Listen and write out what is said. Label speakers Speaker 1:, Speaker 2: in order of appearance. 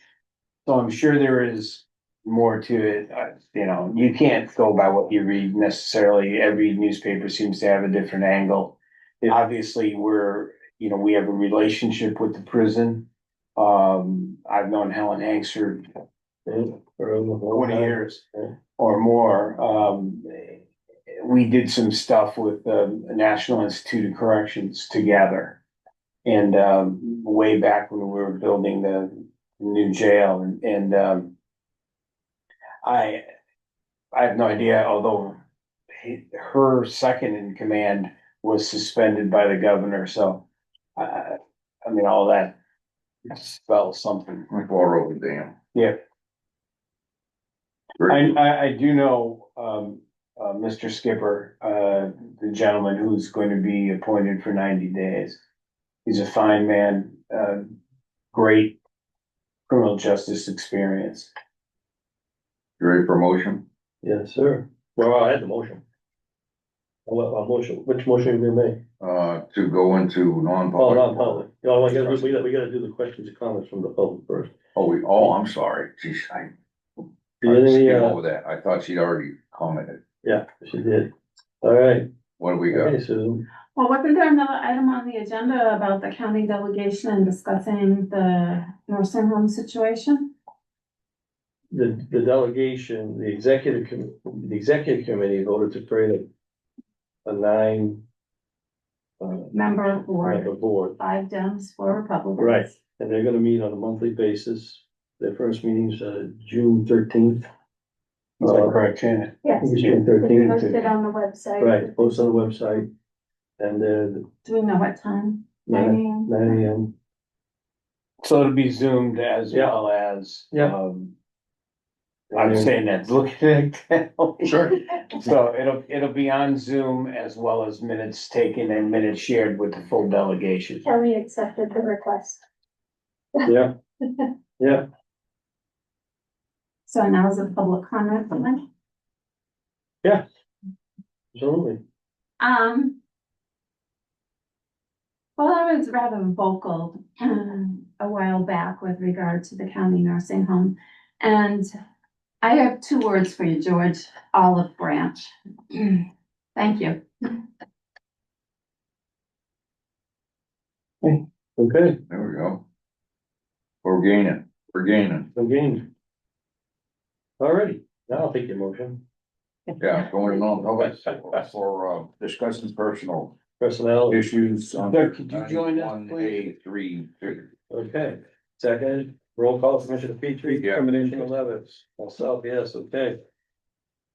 Speaker 1: So I'm sure there is more to it, uh, you know, you can't go by what you read necessarily, every newspaper seems to have a different angle. And Obviously, we're, you know, we have a relationship with the prison. Um, I've known Helen Hanks for twenty years
Speaker 2: Yeah.
Speaker 1: or more, um. We did some stuff with the National Institute of Corrections together. And, um, way back when we were building the new jail and, and, um. I, I have no idea, although he- her second in command was suspended by the governor, so. Uh, I mean, all that spells something.
Speaker 2: Like water over the dam.
Speaker 1: Yeah. I,
Speaker 2: Very,
Speaker 1: I, I do know, um, uh, Mr. Skipper, uh, the gentleman who's going to be appointed for ninety days. He's a fine man, uh, great criminal justice experience.
Speaker 2: you ready for a motion?
Speaker 3: Yes, sir. Well, I had the motion. Well, a motion, which motion we make?
Speaker 2: Uh, to go into
Speaker 3: Oh,
Speaker 2: non-public.
Speaker 3: not public. No, I gotta, we gotta, we gotta do the questions and comments from the public first.
Speaker 2: Oh, we, oh, I'm sorry, geez, I.
Speaker 3: She did,
Speaker 2: I skipped
Speaker 3: uh,
Speaker 2: over that, I thought she'd already commented,
Speaker 3: Yeah, she did. All right.
Speaker 2: what do we got?
Speaker 3: Okay, Susan.
Speaker 4: Well, wasn't there another item on the agenda about the county delegation and discussing the nursing home situation?
Speaker 3: The, the delegation, the executive, com- the executive committee voted to create a, a nine. Uh,
Speaker 4: Member of board,
Speaker 3: member board,
Speaker 4: five Dems, four Republicans.
Speaker 3: Right. and they're gonna meet on a monthly basis. Their first meeting's, uh, June thirteenth.
Speaker 1: Is that correct, Shannon?
Speaker 5: Yes,
Speaker 3: June
Speaker 5: it's
Speaker 3: thirteenth.
Speaker 5: posted on the website.
Speaker 3: Right, post on the website. And then
Speaker 4: Do we know what time?
Speaker 3: nine,
Speaker 5: Nine
Speaker 3: nine AM,
Speaker 1: So it'll be zoomed as
Speaker 3: Yeah.
Speaker 1: well as,
Speaker 3: Yeah.
Speaker 1: um, I'm saying that, look at it.
Speaker 2: Sure.
Speaker 1: So it'll, it'll be on Zoom as well as minutes taken and minutes shared with the full delegation.
Speaker 5: Kelly accepted the request.
Speaker 3: yeah, yeah,
Speaker 4: So now is it public comment time?
Speaker 3: absolutely.
Speaker 4: Um. Well, I was rather vocal um, a while back with regard to the county nursing home. And I have two words for you, George, olive branch. Thank you.
Speaker 3: Okay,
Speaker 2: There we go. We're gaining, we're gaining,
Speaker 3: again. Alrighty, now I'll take your motion.
Speaker 2: yeah, going non-public for, uh, discussing personal
Speaker 3: Personnel,
Speaker 2: issues.
Speaker 1: Doug, could you join us, please?
Speaker 2: One, A, three, two.
Speaker 3: okay. Second, roll call, Commissioner Petrie,
Speaker 2: Yeah.
Speaker 3: Commissioner Levis, myself, yes, okay.